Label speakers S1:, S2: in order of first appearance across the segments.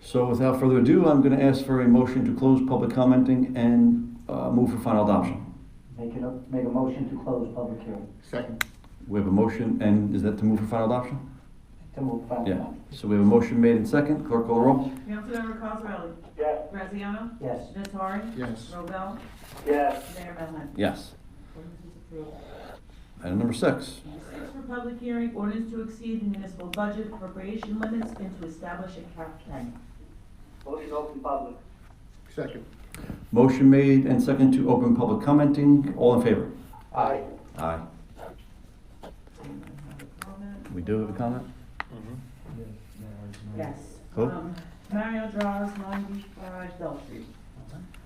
S1: So without further ado, I'm going to ask for a motion to close public commenting and uh, move for final adoption.
S2: Make it, a- make a motion to close public hearing,
S3: Second.
S1: We have a motion, and is that to move for final adoption?
S2: to move final
S1: Yeah.
S2: adoption.
S1: So we have a motion made and second. Clerk call the roll.
S4: Councilmember Cosarelli?
S5: Yes.
S4: Graziano?
S2: Yes,
S4: Nattari?
S3: Yes.
S4: Robel?
S5: Yes.
S4: Mayor Melham?
S1: Yes.
S4: Ordinance is approved.
S1: Item number six.
S4: Six for public hearing, ordinance to exceed the municipal budget appropriation limits and to establish a cap plan.
S5: Motion open public.
S3: Second.
S1: Motion made and second to open public commenting. All in favor?
S5: Aye.
S1: Aye. We do have a comment?
S4: Yes.
S1: Who?
S4: Um, Mario draws ninety-five Bell Street.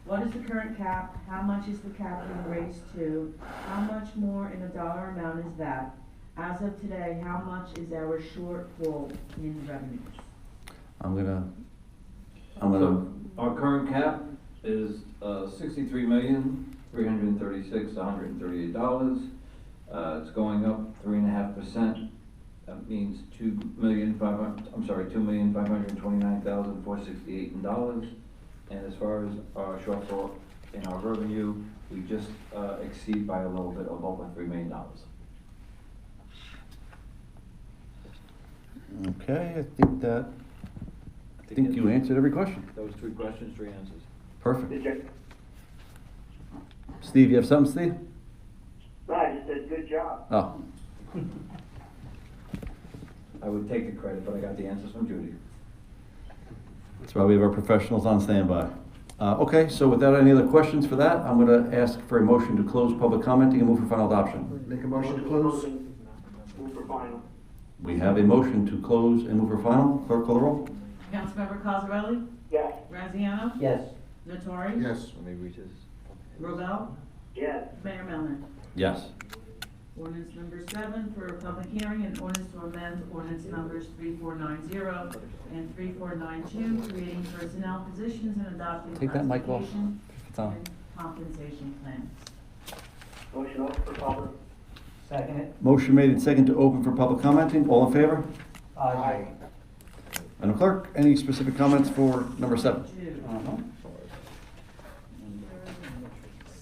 S4: What is the current cap? How much is the cap being raised to? How much more in a dollar amount is that? As of today, how much is our shortfall in revenues?
S1: I'm gonna, I'm gonna,
S6: So our current cap is uh, sixty-three million, three hundred and thirty-six, hundred and thirty-eight dollars. Uh, it's going up three and a half percent. That means two million five hun, I'm sorry, two million five hundred and twenty-nine thousand four sixty-eight in dollars. And as far as our shortfall in our revenue, we just uh, exceed by a little bit of over three million dollars.
S1: okay, I think that, I think you answered every question.
S6: Those three questions, three answers.
S1: Perfect.
S5: Did you,
S1: Steve, you have something, Steve?
S5: no, I just said good job.
S1: Oh,
S6: I would take the credit, but I got the answers from Judy.
S1: that's why we have our professionals on standby. Uh, okay, so without any other questions for that, I'm gonna ask for a motion to close public commenting and move for final adoption.
S3: Make a motion to close?
S5: Move for final.
S1: We have a motion to close and move for final. Clerk call the roll.
S4: Councilmember Cosarelli?
S5: Yes.
S4: Graziano?
S2: yes,
S4: Nattari?
S3: Yes.
S6: Let me reach this.
S4: Robel?
S5: Yes.
S4: Mayor Melham?
S1: Yes.
S4: Ordinance number seven for a public hearing, an ordinance to amend ordinance numbers three four nine zero and three four nine two, creating personnel positions and adopting
S1: Take that mic off.
S4: classification
S1: It's on.
S4: and compensation plans.
S5: Motion open for public.
S2: second it,
S1: Motion made and second to open for public commenting. All in favor?
S2: aye.
S1: Madam Clerk, any specific comments for number seven?
S4: Two.
S1: Uh,
S2: Uh-huh.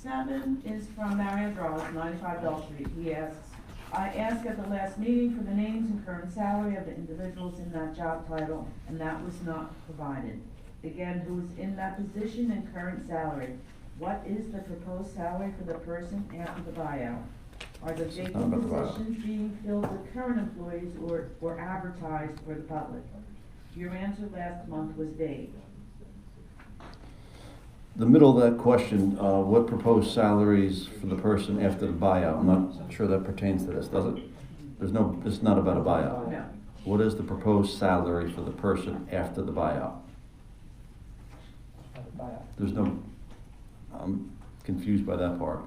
S4: Seven is from Mario Draws, ninety-five Bell Street. He asks, I asked at the last meeting for the names and current salary of the individuals in that job title, and that was not provided. Again, who is in that position and current salary? What is the proposed salary for the person after the buyout? Are the
S1: not
S4: vacant
S1: about the buyout.
S4: positions being filled with current employees or, or advertised for the public? Your answer last month was vague.
S1: The middle of that question, uh, what proposed salaries for the person after the buyout? I'm not sure that pertains to this, does it? There's no, it's not about a buyout.
S4: No.
S1: What is the proposed salary for the person after the buyout?
S2: Bye.
S1: There's no, I'm confused by that part.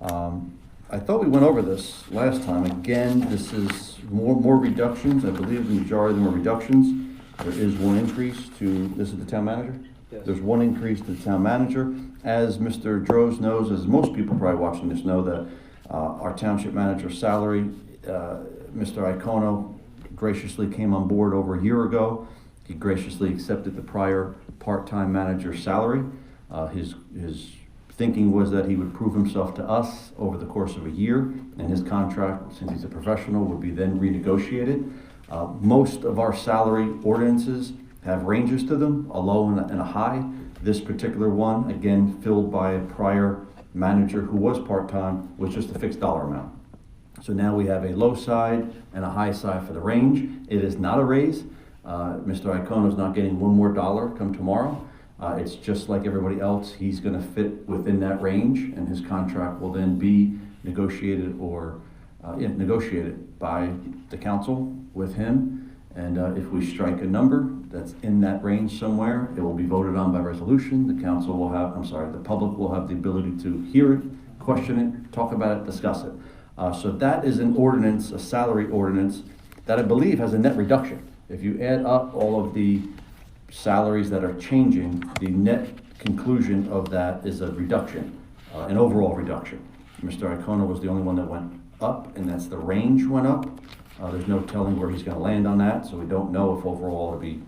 S1: Um, I thought we went over this last time. Again, this is more, more reductions. I believe the majority of them are reductions. There is one increase to, this is the town manager?
S6: Yes.
S1: There's one increase to the town manager. As Mr. Droz knows, as most people probably watching this know, that uh, our township manager's salary, uh, Mr. Icono graciously came on board over a year ago. He graciously accepted the prior part-time manager's salary. Uh, His, his thinking was that he would prove himself to us over the course of a year, and his contract, since he's a professional, would be then renegotiated. Uh, Most of our salary ordinances have ranges to them, a low and a, and a high. This particular one, again, filled by a prior manager who was part-time, was just a fixed dollar amount. So now we have a low side and a high side for the range. It is not a raise. Uh, Mr. Iacono is not getting one more dollar come tomorrow. Uh, It's just like everybody else, he's going to fit within that range, and his contract will then be negotiated or, uh, yeah, negotiated by the council with him. And uh, if we strike a number that's in that range somewhere, it will be voted on by resolution. The council will have, I'm sorry, the public will have the ability to hear it, question it, talk about it, discuss it. Uh, So that is an ordinance, a salary ordinance, that I believe has a net reduction. If you add up all of the salaries that are changing, the net conclusion of that is a reduction, uh, an overall reduction. Mr. Iacona was the only one that went up, and that's the range went up. Uh, There's no telling where he's going to land on that, so we don't know if overall it'll be